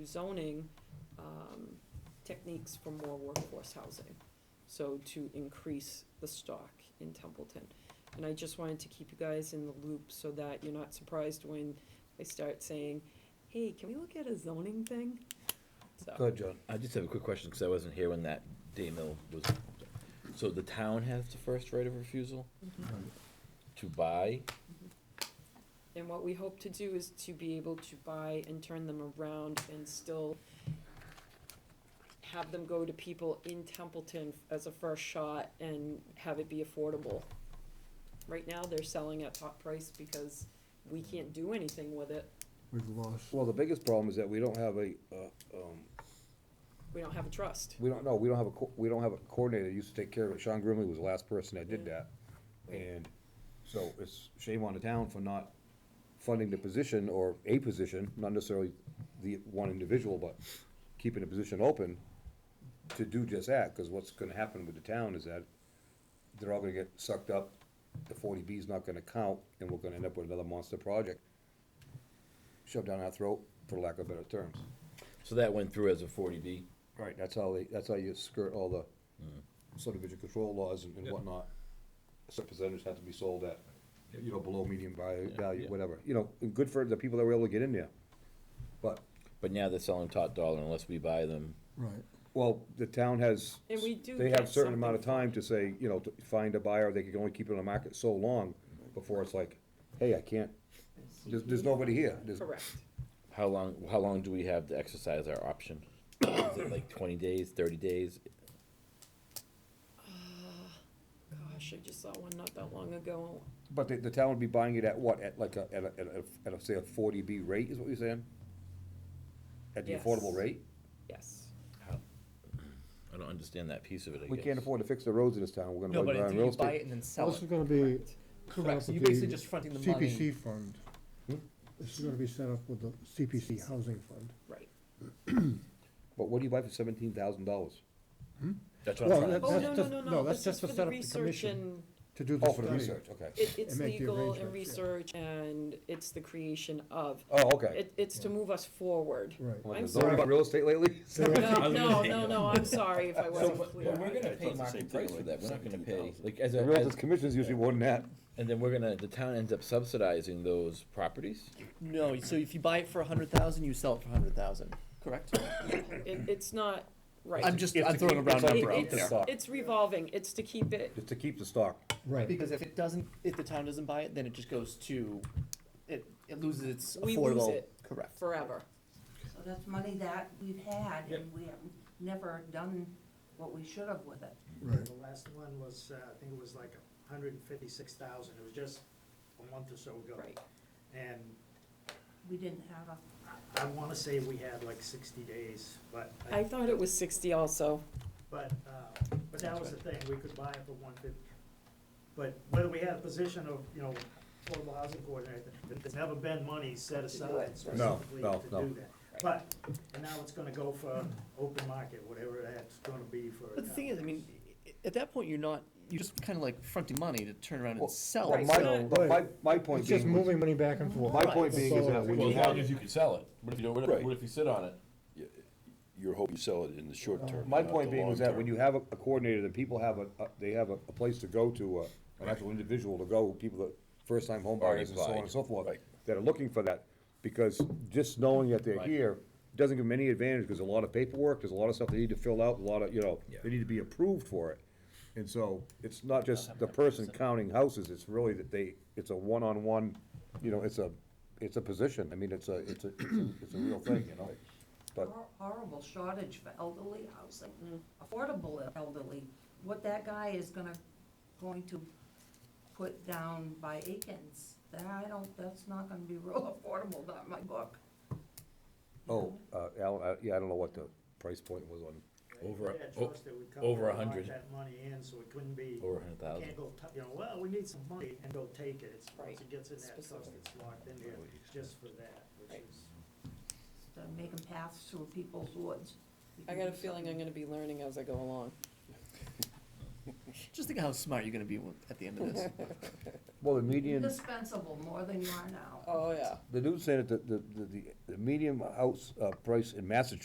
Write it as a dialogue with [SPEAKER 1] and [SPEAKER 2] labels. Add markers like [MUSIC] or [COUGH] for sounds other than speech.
[SPEAKER 1] zoning um, techniques for more workforce housing, so to increase the stock in Templeton. And I just wanted to keep you guys in the loop so that you're not surprised when I start saying, hey, can we look at a zoning thing? So,
[SPEAKER 2] ahead, John.
[SPEAKER 3] I just have a quick question, because I wasn't here when that day mill was, so the town has the first right of refusal
[SPEAKER 1] mhm. Mm-hmm.
[SPEAKER 3] to buy?
[SPEAKER 1] and what we hope to do is to be able to buy and turn them around and still have them go to people in Templeton as a first shot and have it be affordable. Right now, they're selling at top price because we can't do anything with it.
[SPEAKER 4] We've lost.
[SPEAKER 2] Well, the biggest problem is that we don't have a, uh, um,
[SPEAKER 1] We don't have a trust.
[SPEAKER 2] we don't know, we don't have a, co- we don't have a coordinator that used to take care of it. Sean Grimley was the last person that did that. And so it's shame on the town for not funding the position or a position, not necessarily the one individual, but keeping a position open to do just that, because what's gonna happen with the town is that they're all gonna get sucked up, the forty B's not gonna count, and we're gonna end up with another monster project shoved down our throat, for lack of better terms.
[SPEAKER 3] So that went through as a forty B?
[SPEAKER 2] Right, that's how they, that's how you skirt all the
[SPEAKER 3] Hmm.
[SPEAKER 2] subdivision control laws and and
[SPEAKER 4] Yeah.
[SPEAKER 2] whatnot. Certain percentages have to be sold at, you know, below median value,
[SPEAKER 3] Yeah,
[SPEAKER 2] value,
[SPEAKER 3] yeah.
[SPEAKER 2] whatever, you know, and good for the people that were able to get in there. But,
[SPEAKER 3] But now they're selling top dollar unless we buy them.
[SPEAKER 4] Right.
[SPEAKER 2] well, the town has,
[SPEAKER 1] And we do
[SPEAKER 2] they
[SPEAKER 1] get
[SPEAKER 2] have certain amount of
[SPEAKER 1] something for
[SPEAKER 2] time
[SPEAKER 1] it.
[SPEAKER 2] to say, you know, to find a buyer, they can only keep it on the market so long before it's like, hey, I can't, there's, there's nobody here, there's,
[SPEAKER 1] Correct.
[SPEAKER 3] How long, how long do we have to exercise our option? Is it like twenty days, thirty days?
[SPEAKER 1] Gosh, I just saw one not that long ago.
[SPEAKER 2] but the, the town would be buying it at what, at like a, at a, at a, at a, say a forty B rate is what you're saying? At the
[SPEAKER 1] Yes.
[SPEAKER 2] affordable rate?
[SPEAKER 1] Yes.
[SPEAKER 3] I don't understand that piece of it, I guess.
[SPEAKER 2] We can't afford to fix the roads in this town, we're
[SPEAKER 5] No,
[SPEAKER 2] gonna
[SPEAKER 5] but
[SPEAKER 2] buy
[SPEAKER 5] if
[SPEAKER 2] on real
[SPEAKER 5] you buy it
[SPEAKER 2] estate.
[SPEAKER 5] and then sell
[SPEAKER 4] This is
[SPEAKER 5] it.
[SPEAKER 4] gonna be.
[SPEAKER 5] Correct, so
[SPEAKER 4] set up
[SPEAKER 5] you're
[SPEAKER 4] with
[SPEAKER 5] basically
[SPEAKER 4] the
[SPEAKER 5] just fronting the money.
[SPEAKER 4] CPC fund.
[SPEAKER 2] Hmm?
[SPEAKER 4] This is gonna be set up with the CPC housing fund.
[SPEAKER 1] Right.
[SPEAKER 2] But what do you buy for seventeen thousand dollars?
[SPEAKER 3] That's what I'm
[SPEAKER 4] Well,
[SPEAKER 3] trying to
[SPEAKER 4] that-
[SPEAKER 1] Oh,
[SPEAKER 4] that's
[SPEAKER 1] no, no,
[SPEAKER 4] just,
[SPEAKER 1] no,
[SPEAKER 4] no,
[SPEAKER 1] no.
[SPEAKER 4] that's
[SPEAKER 1] This is
[SPEAKER 4] just
[SPEAKER 1] for
[SPEAKER 4] to
[SPEAKER 1] the
[SPEAKER 4] set up the
[SPEAKER 1] research
[SPEAKER 4] commission
[SPEAKER 1] and
[SPEAKER 4] to do
[SPEAKER 2] Oh,
[SPEAKER 4] the
[SPEAKER 2] for the
[SPEAKER 4] study.
[SPEAKER 2] research, okay.
[SPEAKER 1] It, it's
[SPEAKER 4] And make the
[SPEAKER 1] legal and
[SPEAKER 4] arrangements, yeah.
[SPEAKER 1] research, and it's the creation of.
[SPEAKER 2] Oh, okay.
[SPEAKER 1] It, it's to move us forward.
[SPEAKER 4] Right.
[SPEAKER 2] Well,
[SPEAKER 1] I'm
[SPEAKER 2] there's nobody
[SPEAKER 1] sorry.
[SPEAKER 2] bought real estate
[SPEAKER 5] [LAUGHS]
[SPEAKER 2] lately?
[SPEAKER 1] No, no, no, no, I'm sorry if I
[SPEAKER 3] So,
[SPEAKER 1] wasn't
[SPEAKER 3] but, but we're
[SPEAKER 1] clear.
[SPEAKER 3] gonna pay
[SPEAKER 5] I thought the same
[SPEAKER 3] market
[SPEAKER 5] thing,
[SPEAKER 3] price
[SPEAKER 5] like
[SPEAKER 3] for that, we're not gonna pay,
[SPEAKER 5] 17,000.
[SPEAKER 3] like, as
[SPEAKER 2] The
[SPEAKER 3] a,
[SPEAKER 2] realtor's
[SPEAKER 3] as-
[SPEAKER 2] commission's usually more than that.
[SPEAKER 3] and then we're gonna, the town ends up subsidizing those properties?
[SPEAKER 5] No, so if you buy it for a hundred thousand, you sell it for a hundred thousand, correct?
[SPEAKER 1] It, it's not right.
[SPEAKER 5] I'm just,
[SPEAKER 2] It's
[SPEAKER 5] I'm
[SPEAKER 2] to
[SPEAKER 5] throwing
[SPEAKER 2] keep the
[SPEAKER 5] a round
[SPEAKER 2] sub-
[SPEAKER 1] It-
[SPEAKER 5] number out
[SPEAKER 2] it's-
[SPEAKER 5] there.
[SPEAKER 2] there.
[SPEAKER 1] It's revolving, it's to keep it,
[SPEAKER 2] Just to keep the stock.
[SPEAKER 4] Right.
[SPEAKER 5] Because if it doesn't, if the town doesn't buy it, then it just goes to, it, it loses its
[SPEAKER 1] We lose
[SPEAKER 5] affordable,
[SPEAKER 1] it.
[SPEAKER 5] correct.
[SPEAKER 1] forever.
[SPEAKER 6] So that's money that we've had, and we have never done what we should have with it.
[SPEAKER 4] Right.
[SPEAKER 7] The last one was, uh, I think it was like a hundred and fifty-six thousand, it was just a month or so ago.
[SPEAKER 1] Right.
[SPEAKER 7] And
[SPEAKER 6] We didn't have a,
[SPEAKER 7] I- I wanna say we had like sixty days, but, I-
[SPEAKER 1] I thought it was sixty also.
[SPEAKER 7] but, uh, but that was the thing, we could buy it for one fifty. But whether we had a position of, you know, affordable housing coordinator, th- there's never been money set aside specifically
[SPEAKER 2] no,
[SPEAKER 7] to
[SPEAKER 2] no.
[SPEAKER 7] do that. But, and now it's gonna go for open market, whatever that's gonna be for.
[SPEAKER 5] But the
[SPEAKER 7] now.
[SPEAKER 5] thing is, I mean, i- at that point, you're not, you're just kinda like fronting money to turn around
[SPEAKER 2] Well,
[SPEAKER 5] and sell
[SPEAKER 2] But
[SPEAKER 5] it,
[SPEAKER 2] my-
[SPEAKER 5] so.
[SPEAKER 2] But my, my point
[SPEAKER 4] It's just
[SPEAKER 2] being, was-
[SPEAKER 4] moving money back and forth.
[SPEAKER 2] my point being is that
[SPEAKER 4] So-
[SPEAKER 2] when
[SPEAKER 8] Well,
[SPEAKER 2] you
[SPEAKER 8] as long
[SPEAKER 2] have,
[SPEAKER 8] as you can sell it, what if you, what
[SPEAKER 3] Right.
[SPEAKER 8] if, what if you sit on it?
[SPEAKER 9] Your hope you sell it in the short term.
[SPEAKER 2] my
[SPEAKER 9] not
[SPEAKER 2] point
[SPEAKER 9] the
[SPEAKER 2] being was
[SPEAKER 9] long
[SPEAKER 2] that when
[SPEAKER 9] term.
[SPEAKER 2] you have a a coordinator, then people have a, a- they have a a place to go to, uh, an actual individual to go, people that, first-time home
[SPEAKER 3] Already
[SPEAKER 2] buyers and so on
[SPEAKER 3] applied.
[SPEAKER 2] and so forth,
[SPEAKER 9] Right.
[SPEAKER 2] that are looking for that, because just knowing that they're
[SPEAKER 3] Right.
[SPEAKER 2] here doesn't give them any advantage, because a lot of paperwork, there's a lot of stuff they need to fill out, a lot of, you know,
[SPEAKER 3] Yeah.
[SPEAKER 2] they need to be approved for it. And so, it's not just the person counting houses, it's really that they, it's a one-on-one, you know, it's a, it's a position, I mean, it's a, it's a, it's a- it's a real thing, you know? But,
[SPEAKER 6] hor- horrible shortage for elderly housing,
[SPEAKER 1] Mm.
[SPEAKER 6] affordable elderly. What that guy is gonna, going to put down by Aikens, that I don't, that's not gonna be [LAUGHS] real affordable, not in my book.
[SPEAKER 2] oh, uh, Alan, I- yeah, I don't know what the price point was on,
[SPEAKER 3] Over-
[SPEAKER 7] We had trust uh, that we'd come
[SPEAKER 3] over
[SPEAKER 7] in and lock
[SPEAKER 3] 100.
[SPEAKER 7] That money in, so it couldn't be.
[SPEAKER 3] Over a hundred
[SPEAKER 7] You
[SPEAKER 3] thousand.
[SPEAKER 7] Can't go, t- you know, well, we need some money and go take it. It's,
[SPEAKER 1] Right.
[SPEAKER 7] once it gets in that trust,
[SPEAKER 1] Specific.
[SPEAKER 7] it's locked in there just for that, which
[SPEAKER 1] Right.
[SPEAKER 7] is.
[SPEAKER 6] To make them pass through people's woods.
[SPEAKER 1] I got a feeling I'm gonna be learning as I go along.
[SPEAKER 5] Just think how smart you're gonna be at the end of this.
[SPEAKER 2] Well, the median,
[SPEAKER 6] indispensable more than you are now.
[SPEAKER 1] Oh, yeah.
[SPEAKER 2] the dude said that the, the, the- the median house, uh, price in Massachusetts